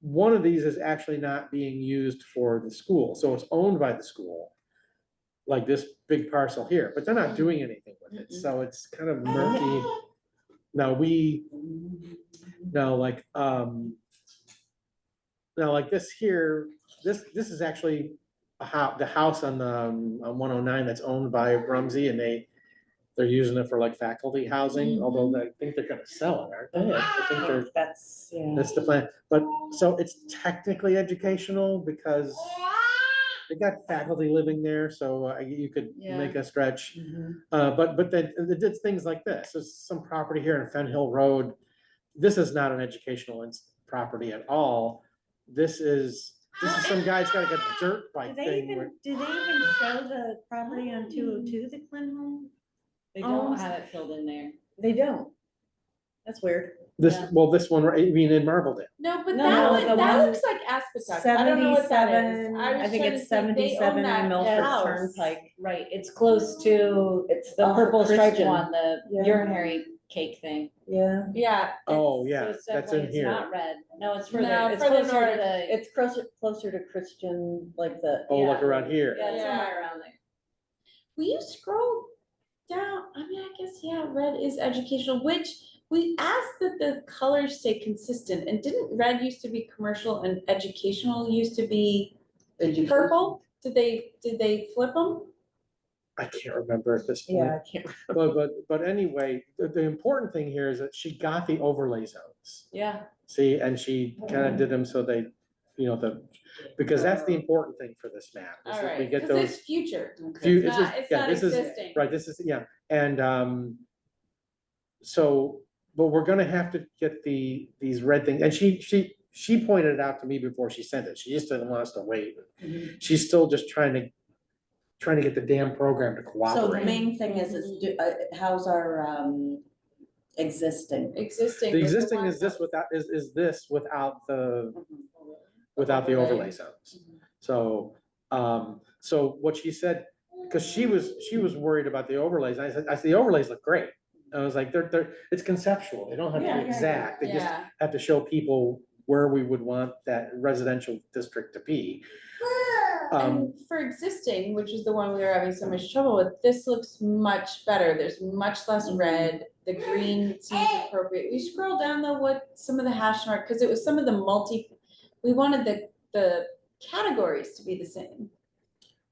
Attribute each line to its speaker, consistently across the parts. Speaker 1: one of these is actually not being used for the school, so it's owned by the school. Like this big parcel here, but they're not doing anything with it, so it's kind of murky. Now, we, now like, um. Now, like this here, this, this is actually a hou- the house on the, um, on one oh nine that's owned by Rumsey and they. They're using it for like faculty housing, although I think they're gonna sell it, aren't they? I think they're
Speaker 2: That's, yeah.
Speaker 1: that's the plan, but, so it's technically educational because they got faculty living there, so uh, you could make a stretch. Uh, but, but then, they did things like this, there's some property here in Fen Hill Road. This is not an educational ins- property at all. This is, this is some guy's got like a dirt
Speaker 3: Do
Speaker 1: bike
Speaker 3: they
Speaker 1: thing
Speaker 3: even,
Speaker 1: where,
Speaker 3: do they even show the property on two oh two, the Clem home?
Speaker 2: They
Speaker 3: Oh.
Speaker 2: don't have it filled in there.
Speaker 3: They don't. That's weird.
Speaker 1: this,
Speaker 2: yeah.
Speaker 1: well, this one, right, I mean, in Marbledale.
Speaker 4: No, but
Speaker 2: No, no,
Speaker 4: that
Speaker 2: the
Speaker 4: one, that
Speaker 2: one-
Speaker 4: looks like Aspasas. I don't know what that is.
Speaker 3: Seventy-seven,
Speaker 4: was
Speaker 3: I think
Speaker 4: trying
Speaker 3: it's
Speaker 4: to think, they own
Speaker 3: seventy-seven
Speaker 4: that
Speaker 3: on Milford
Speaker 4: house.
Speaker 3: Turnpike.
Speaker 2: Right, it's close to, it's the
Speaker 3: Oh,
Speaker 2: purple striped
Speaker 3: Christian.
Speaker 2: one, the
Speaker 3: Yeah.
Speaker 2: urinary cake thing.
Speaker 3: Yeah.
Speaker 4: Yeah.
Speaker 1: Oh,
Speaker 2: It's-
Speaker 1: yeah,
Speaker 2: so it's
Speaker 1: that's
Speaker 2: definitely-
Speaker 1: in
Speaker 2: it's
Speaker 1: here.
Speaker 2: Not red. No, it's further,
Speaker 4: No,
Speaker 2: it's
Speaker 4: further
Speaker 2: closer to
Speaker 4: north.
Speaker 2: the,
Speaker 3: It's closer, closer to Christian, like the,
Speaker 1: Oh, look
Speaker 2: Yeah.
Speaker 1: around here,
Speaker 2: yeah, it's
Speaker 4: Yeah.
Speaker 2: somewhere around there.
Speaker 4: Will you scroll down? I mean, I guess, yeah, red is educational, which we asked that the colors stay consistent. And didn't red used to be commercial and educational used to be purple? Did they, did they flip them?
Speaker 1: I can't remember at this point.
Speaker 3: yeah, I can't,
Speaker 1: But, but, but anyway, the, the important thing here is that she got the overlay zones.
Speaker 2: Yeah,
Speaker 1: See, and she kind of did them so they, you know, the, because that's the important thing for this map, is
Speaker 4: All
Speaker 1: that we
Speaker 4: right,
Speaker 1: get
Speaker 4: because
Speaker 1: those.
Speaker 4: it's future.
Speaker 1: few-
Speaker 4: It's
Speaker 1: it's just-
Speaker 4: not, it's
Speaker 1: yeah,
Speaker 4: not
Speaker 1: this is-
Speaker 4: existing.
Speaker 1: Right, this is, yeah, and, um, so, but we're gonna have to get the, these red things, and she, she, she pointed it out to me before she sent it, she just didn't want us to wait.
Speaker 4: Mm-hmm.
Speaker 1: She's still just trying to, trying to get the damn program to
Speaker 3: so the
Speaker 1: cooperate.
Speaker 3: main thing is, is do, uh, how's our, um, existing?
Speaker 4: Existing.
Speaker 1: The
Speaker 4: was
Speaker 1: existing
Speaker 4: one
Speaker 1: is this
Speaker 4: that-
Speaker 1: without, is, is this without the without the overlay zones. So, um, so what she said, because she was, she was worried about the overlays, and I said, I said, the overlays look great. I was like, they're, they're, it's conceptual, they don't have to
Speaker 3: Yeah,
Speaker 1: be
Speaker 3: yeah, yeah.
Speaker 1: exact, they just
Speaker 4: Yeah,
Speaker 1: have to show people where we would want that residential district to be. Um,
Speaker 4: and for existing, which is the one we were having so much trouble with, this looks much better, there's much less
Speaker 1: Mm-hmm.
Speaker 4: red, the green seems appropriate. We scroll down though, what, some of the hash mark, because it was some of the multi, we wanted the, the categories to be the same.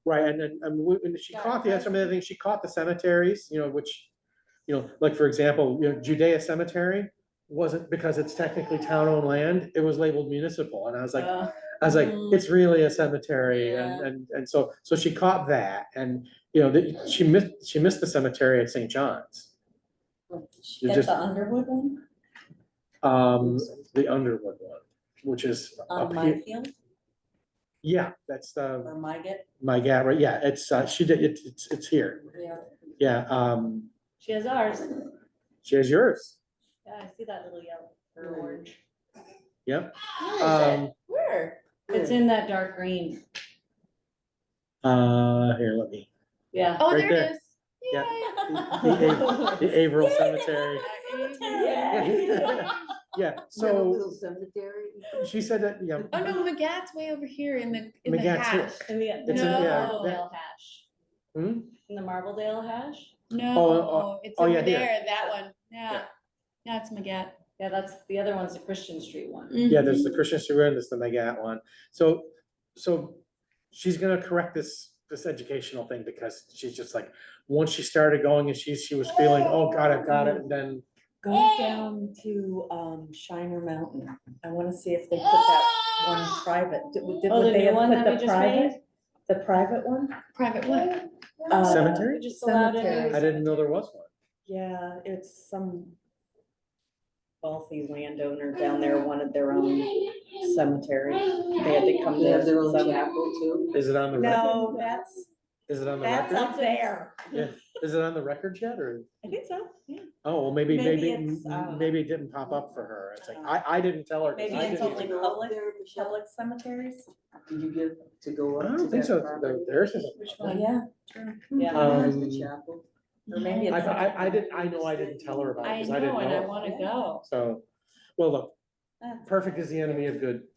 Speaker 1: right, and then, and we- and she
Speaker 4: Yeah,
Speaker 1: caught the,
Speaker 4: that's-
Speaker 1: some of the things, she caught the cemeteries, you know, which, you know, like, for example, you know, Judea Cemetery wasn't, because it's technically town-owned land, it was labeled municipal, and I was like,
Speaker 2: Uh,
Speaker 1: I was like,
Speaker 4: Mm.
Speaker 1: it's really a cemetery and,
Speaker 4: Yeah.
Speaker 1: and, and so, so she caught that and, you know, that she missed, she missed the cemetery at St. John's. She
Speaker 3: Get
Speaker 1: just,
Speaker 3: the Underwood one
Speaker 1: um, the Underwood one, which is
Speaker 3: on
Speaker 1: up here.
Speaker 3: my field,
Speaker 1: Yeah, that's the,
Speaker 3: or my get,
Speaker 1: my gal, right, yeah, it's, uh, she did, it's, it's, it's here.
Speaker 3: yeah.
Speaker 1: Yeah, um,
Speaker 2: she has ours.
Speaker 1: she has yours.
Speaker 2: Yeah, I see that little yellow or
Speaker 3: Mm.
Speaker 2: orange.
Speaker 1: Yep.
Speaker 4: Where is it?
Speaker 1: Um,
Speaker 4: Where?
Speaker 2: It's in that dark green.
Speaker 1: uh, here, let me,
Speaker 2: Yeah.
Speaker 4: Oh,
Speaker 1: right
Speaker 4: there
Speaker 1: there.
Speaker 4: it is.
Speaker 1: Yeah.
Speaker 4: Yay.
Speaker 1: the, the Averill Cemetery.
Speaker 4: Cemetery.
Speaker 1: Yeah, so she said that, yeah,
Speaker 4: Oh, no, McGat's way over here in the, in the
Speaker 1: McGat's here.
Speaker 4: hash.
Speaker 2: And we got the
Speaker 1: It's in- yeah,
Speaker 2: Marbledale hash.
Speaker 1: hmm?
Speaker 2: In the Marbledale hash?
Speaker 1: oh,
Speaker 4: No, it's
Speaker 1: oh, yeah,
Speaker 4: over
Speaker 1: here.
Speaker 4: there, that one, yeah, that's McGat.
Speaker 2: Yeah, that's, the other one's the Christian Street one.
Speaker 4: Mm.
Speaker 1: Yeah, there's the Christian Stewart, and there's the Megat one. So, so she's gonna correct this, this educational thing because she's just like, once she started going and she, she was feeling, oh God, I've got it, and then,
Speaker 3: Go down to, um, Shiner Mountain, I wanna see if they put that one private, did, would- did
Speaker 2: Oh, the
Speaker 3: would they
Speaker 2: new
Speaker 3: have
Speaker 2: one
Speaker 3: put
Speaker 2: that we
Speaker 3: the
Speaker 2: just
Speaker 3: private?
Speaker 2: made?
Speaker 3: The private one?
Speaker 4: Private one.
Speaker 3: Uh,
Speaker 1: Cemetery?
Speaker 2: Just allowed it.
Speaker 3: Cemetery.
Speaker 1: I didn't know there was one.
Speaker 3: Yeah, it's some wealthy landowner down there wanted their own cemetery. They had to come
Speaker 5: They
Speaker 3: there.
Speaker 5: have their own
Speaker 3: some-
Speaker 5: chapel too.
Speaker 1: Is it on the record?
Speaker 3: No, that's,
Speaker 1: Is it on the
Speaker 3: that's
Speaker 1: record?
Speaker 3: up there.
Speaker 1: Is it on the record yet, or,
Speaker 3: I think so, yeah.
Speaker 1: oh, well, maybe,
Speaker 3: Maybe
Speaker 1: maybe,
Speaker 3: it's, uh,
Speaker 1: maybe it didn't pop up for her. It's like, I, I didn't tell her. 'cause
Speaker 3: Maybe
Speaker 1: I
Speaker 3: it's
Speaker 1: didn't
Speaker 3: only
Speaker 1: even-
Speaker 5: go
Speaker 3: public-
Speaker 5: up there, Michelle?
Speaker 3: Public cemeteries?
Speaker 5: Did you get to go
Speaker 1: I
Speaker 5: up to
Speaker 1: don't think
Speaker 5: that
Speaker 1: so. There-
Speaker 5: property?
Speaker 1: There's isn't.
Speaker 2: Which
Speaker 3: Oh,
Speaker 2: one?
Speaker 3: Yeah.
Speaker 2: Yeah.
Speaker 5: There's
Speaker 1: Um,
Speaker 5: the chapel.
Speaker 3: Or maybe
Speaker 1: I,
Speaker 3: it's.
Speaker 1: I, I didn't, I know I didn't tell her about it
Speaker 2: I
Speaker 1: because I didn't
Speaker 2: know, and I
Speaker 1: know.
Speaker 2: wanna go.
Speaker 1: So, well, look,
Speaker 3: That's-
Speaker 1: perfect is the enemy of good.